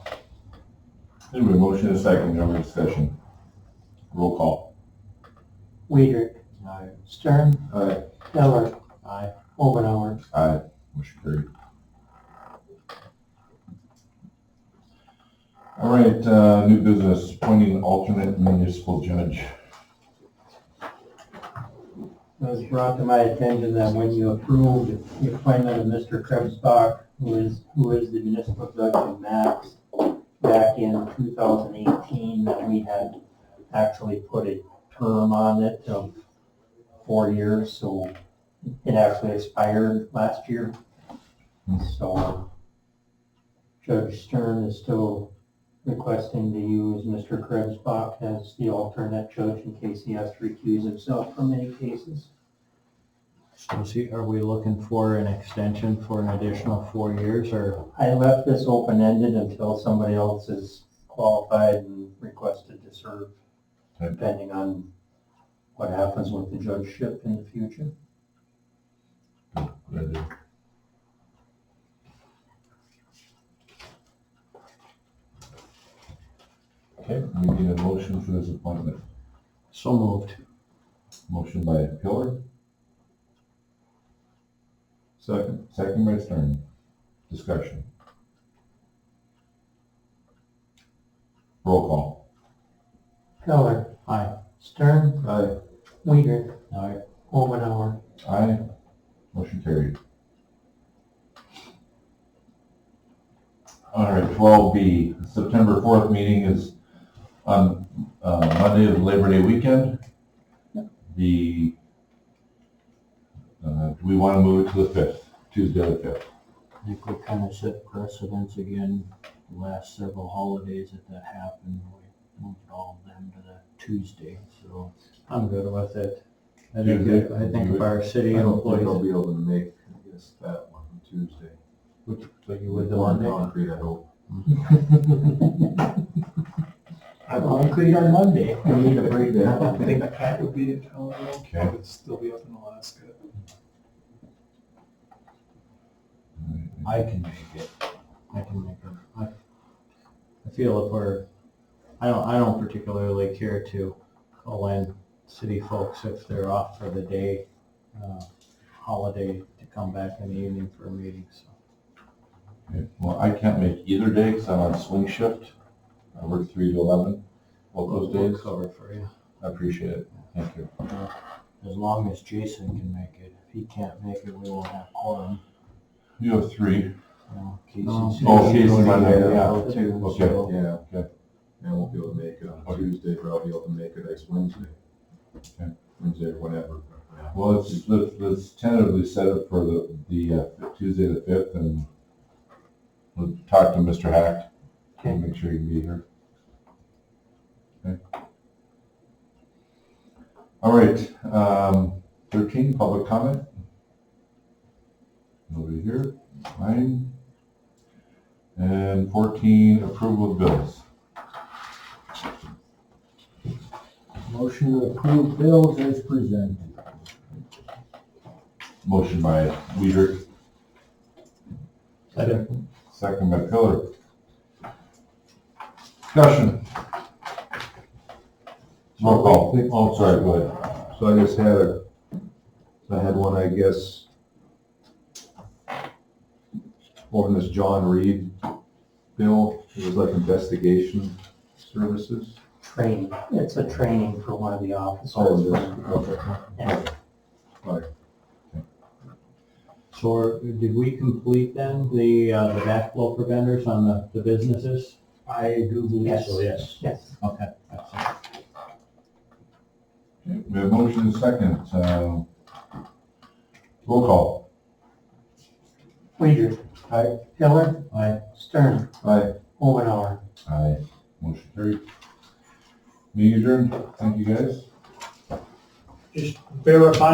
Anyway, motion and a second, no discussion. Roll call. Weider. Aye. Stern. Aye. Miller. Aye. Omenauer. Aye. Motion carried. All right, uh, new business, appointing alternate municipal judge. It was brought to my attention that when you approved the appointment of Mr. Krebsbach, who is, who is the municipal judge in Max, back in 2018, that we had actually put a term on it of four years, so it actually expired last year. So Judge Stern is still requesting to use Mr. Krebsbach as the alternate judge in case he has to recuse himself from any cases. Is he, are we looking for an extension for an additional four years or? I left this open-ended until somebody else is qualified and requested to serve, Okay. depending on what happens with the judgeship in the future. Good idea. Okay, we need a motion for this appointment. So moved. Motion by Pillar. Second. Second by Stern. Discussion. Roll call. Keller. Aye. Stern. Aye. Weider. Aye. Omenauer. Aye. Motion carried. All right, twelve B, September fourth meeting is on uh, Monday of Labor Day weekend. The, uh, do we want to move it to the fifth, Tuesday the fifth? I think we kind of set precedence again, the last several holidays that that happened, we moved all of them to the Tuesday, so. I'm good with it. I think, if- I think if our city employees. be able to make this, that one Tuesday. But you concrete, I hope. I'm concrete on Monday. We need a break now. I think Pat would be in town, I don't care, Okay. would still be up in Alaska. I can make it. I can make it. I, I feel if we're, I don't, I don't particularly care to call in city folks if they're off for the day, uh, holiday to come back in the evening for a meeting, so. Okay, Well, I can't make either day because I'm on swing shift. I work three to eleven, both we'll those days. Cover for you. I appreciate it. Thank you. As long as Jason can make it. If he can't make it, we won't have quorum, You have three. you know. No. Casey's- Oh, Casey's Yeah, Monday, yeah. Oh, go too, Okay. so- Yeah. Okay. I won't be able to make it on Okay. Tuesday, but I'll be able to make it next Wednesday. Okay. Wednesday, or whatever. Well, let's, let's, let's tentatively set it for the, the uh, Tuesday the fifth and we'll talk to Mr. Hack. Okay. and Make sure he can be here. Okay. All right, um, thirteen, public comment. Nobody here, mine. And fourteen, approval of bills. Motion to approve bills as presented. Motion by Weider, Second. Second by Pillar. Discussion. Roll call. Oh, sorry, go ahead. So I just had a, I had one, I guess, on this John Reed bill, it was like investigation services. Training. It's a training for one of the officers. Oh, it is, okay. Yeah. So are- did we complete then the, uh, the backflow preventers on the, the businesses? I do believe so, yes. Yes. Okay. that's it. Okay, We have motion and second. um, Roll call. Weider. Aye. Keller. Aye. Stern. Aye. Omenauer. Aye. Motion carried. Meeting adjourned. Thank you, guys. Just verify